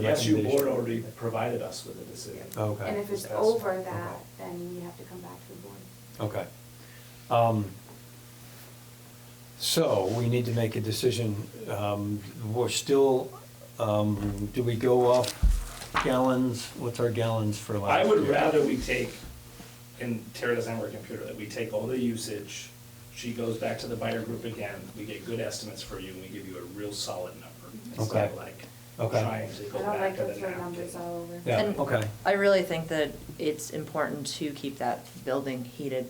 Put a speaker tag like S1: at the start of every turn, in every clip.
S1: The SU
S2: recommendation. Oh,
S1: board already provided us with a decision.
S2: Okay.
S3: And if it's
S1: That's-
S3: over
S2: okay.
S3: that, then you have to come back to the board.
S2: Okay. Um, So we need to make a decision. Um, We're still, um, do we go off gallons? What's our gallons for last
S1: I
S2: year?
S1: would rather we take, and Tara doesn't have her computer, that we take all the usage, she goes back to the buyer group again, we get good estimates for you, and we give you a real solid number. It's
S2: Okay.
S1: not like
S2: Okay.
S1: trying to go
S3: I don't
S1: back
S3: like
S1: to
S3: to
S1: the
S3: throw numbers
S1: napkin.
S3: all over.
S2: Yeah,
S4: And-
S2: okay.
S4: I really think that it's important to keep that building heated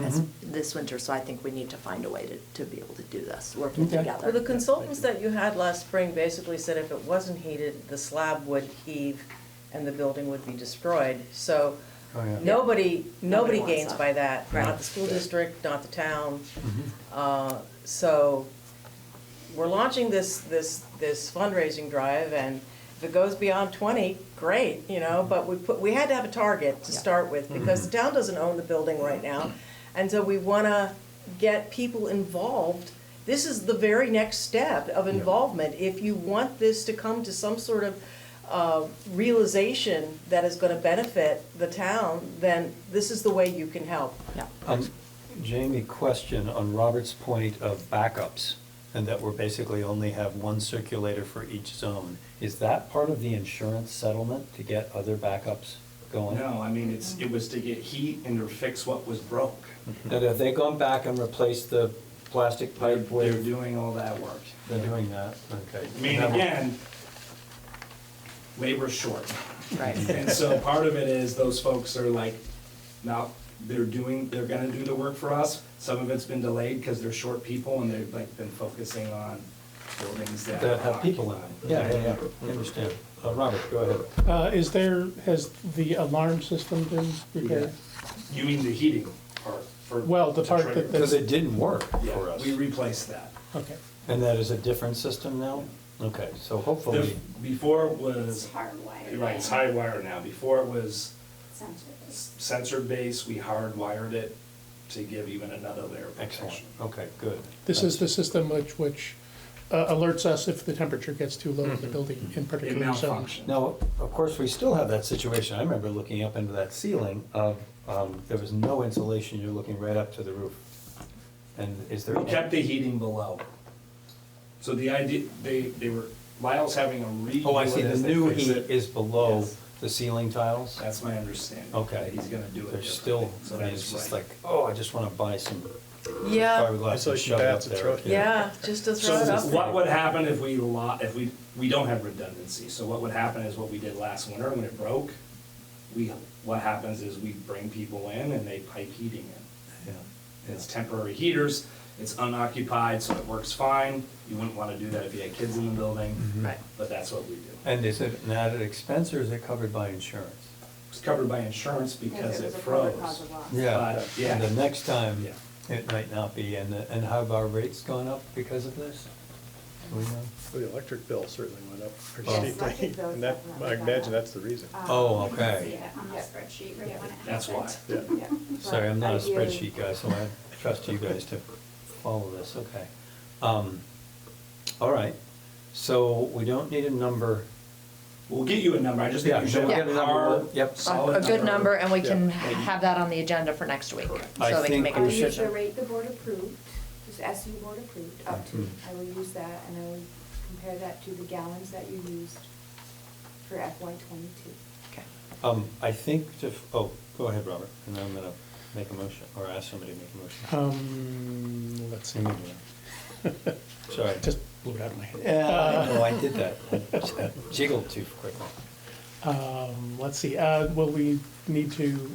S4: as,
S2: Mhm.
S4: this winter, so I think we need to find a way to, to be able to do this, working
S2: Okay.
S4: together.
S5: Well, the consultants that you had last spring basically said if it wasn't heated, the slab would heave and the building would be destroyed. So
S2: Oh, yeah.
S5: nobody,
S4: Nobody
S5: nobody
S4: wants
S5: gains
S4: that.
S5: by that,
S2: Right.
S5: not the school district, not the town.
S2: Mhm.
S5: Uh, So we're launching this, this, this fundraising drive and if it goes beyond 20, great, you know, but we put, we had to have a target to
S4: Yeah.
S5: start with because the town doesn't own the building right now. And so we want to get people involved. This is the very next step of
S2: Yeah.
S5: involvement. If you want this to come to some sort of uh, realization that is going to benefit the town, then this is the way you can help.
S4: Yeah.
S2: Um, Jamie, question on Robert's point of backups, and that we're basically only have one circulator for each zone. Is that part of the insurance settlement to get other backups going?
S1: No, I mean, it's, it was to get heat and to fix what was broke.
S2: And have they gone back and replaced the plastic
S1: They're,
S2: pipe with?
S1: they're doing all that work.
S2: They're doing that, okay.
S1: I mean, again, labor's short.
S4: Right.
S1: And so part of it is those folks are like, now, they're doing, they're gonna do the work for us. Some of it's been delayed because they're short people and they've like been focusing on buildings that.
S2: That have people in it. Yeah, yeah, yeah, I understand. Uh, Robert, go ahead.
S6: Uh, Is there, has the alarm system been repaired?
S1: You mean the heating part for.
S6: Well, the
S1: to
S6: part that
S1: trigger.
S6: the-
S2: Because it didn't work for
S1: Yeah,
S2: us.
S1: we replaced that.
S6: Okay.
S2: And that is a different system now? Okay, so
S1: The-
S2: hopefully,
S1: Before it was,
S3: It's hardwired.
S1: you're right, it's high wire now. Before it was
S3: Essentially.
S1: sensor based, we hardwired it to give even another layer of
S2: excellent,
S1: protection.
S2: okay, good.
S6: This is the system which, which uh, alerts us if the temperature gets too low
S2: Mm-hmm.
S6: in the building in
S1: It
S6: particular zones.
S1: malfunctioned.
S2: Now, of course, we still have that situation. I remember looking up into that ceiling of, um, there was no insulation, you're looking right up to the roof. And is there?
S1: We kept the heating below. So the idea, they, they were, Lyle's having a redo.
S2: Oh, I see,
S1: it
S2: the
S1: as they
S2: new
S1: fix
S2: heat
S1: it.
S2: is below
S1: Yes.
S2: the ceiling tiles?
S1: That's my understanding.
S2: Okay.
S1: He's gonna do it.
S2: There's still,
S1: differently. So
S2: I mean,
S1: that
S2: it's
S1: is
S2: just
S1: right.
S2: like, oh, I just want to buy some
S5: Yeah,
S2: fiberglass and
S7: Insulation
S2: shove it up
S7: pads and throw
S2: there.
S7: it.
S5: yeah, just to throw it
S1: So
S5: up there.
S1: what would happen if we lo, if we, we don't have redundancy, so what would happen is what we did last winter when it broke, we, what happens is we bring people in and they pipe heating in.
S2: Yeah.
S1: It's temporary heaters, it's unoccupied, so it works fine, you wouldn't wanna do that if you had kids in the building.
S2: Right.
S1: But that's what we do.
S2: And is it an added expense or is it covered by insurance?
S1: It's covered by insurance because it
S3: was a covered cause
S1: froze.
S3: of loss.
S1: Yeah. Uh, Yeah.
S2: And the next time,
S1: Yeah.
S2: it might not be, and, and have our rates gone up because of this? Do we know?
S7: The electric bill certainly went up pretty
S3: Yes, electric
S7: steeply,
S3: bill
S7: and that,
S3: definitely
S7: I
S3: went
S7: imagine
S3: up.
S7: that's the reason.
S3: Um,
S2: Oh,
S3: you can
S2: okay.
S3: see it On the spreadsheet right when it
S1: That's why.
S3: happened.
S7: Yeah.
S3: Yeah.
S2: Sorry, I'm not a
S3: But ideally-
S2: spreadsheet guy, so I trust you guys to follow this, okay. Um, All right, so we don't need a number.
S1: We'll get you a number, I just
S2: Yeah,
S1: think you
S2: so
S1: should
S2: we'll
S1: have
S2: get a
S1: a
S2: number,
S1: hard,
S2: yep.
S1: solid
S4: A
S1: number.
S4: a good number, and we can
S7: Yeah.
S4: have that on the agenda for next week,
S2: I
S4: so we
S2: think
S4: can make
S3: I'll
S4: a
S2: we should-
S3: use the
S4: decision.
S3: rate the board approved, this SU board approved, up to,
S1: Mm-hmm.
S3: I will use that, and I will compare that to the gallons that you used for FY twenty-two.
S4: Okay.
S2: Um, I think to, f- oh, go ahead, Robert, and I'm gonna make a motion, or ask somebody to make a
S6: Uh.
S2: motion.
S6: Um, let's see,
S2: Let me do that. Sorry.
S6: just uh. blew it out of my head.
S2: Yeah, I know, I did that. I Jiggled too quickly.
S6: Um, Let's see, uh, will we need to,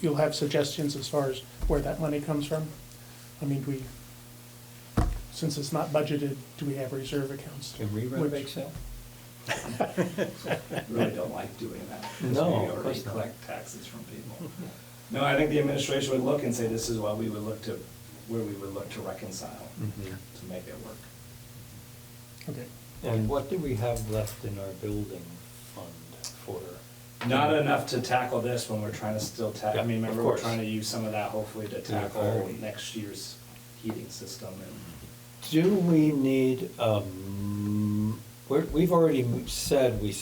S6: you'll have suggestions as far as where that money comes from? I mean, do we, since it's not budgeted, do we have reserve accounts?
S2: Can we run a
S6: Which-
S2: bake sale?
S1: Really don't like doing that. 'cause
S2: No,
S1: we
S2: of
S1: already
S2: course not.
S1: Collect taxes from people. No, I think the administration would look and say, this is what we would look to, where we would look to reconcile,
S2: Mhm.
S1: to make it work.
S6: Okay,
S2: And what do we have left in our building fund for?
S1: Not enough to tackle this when we're trying to still ta,
S2: Yeah,
S1: I mean,
S2: of
S1: remember, we're
S2: course.
S1: trying to use some of that hopefully
S2: To
S1: to
S2: the
S1: tackle
S2: priority.
S1: next year's heating system and
S2: Do we need, um, we're- we've already said we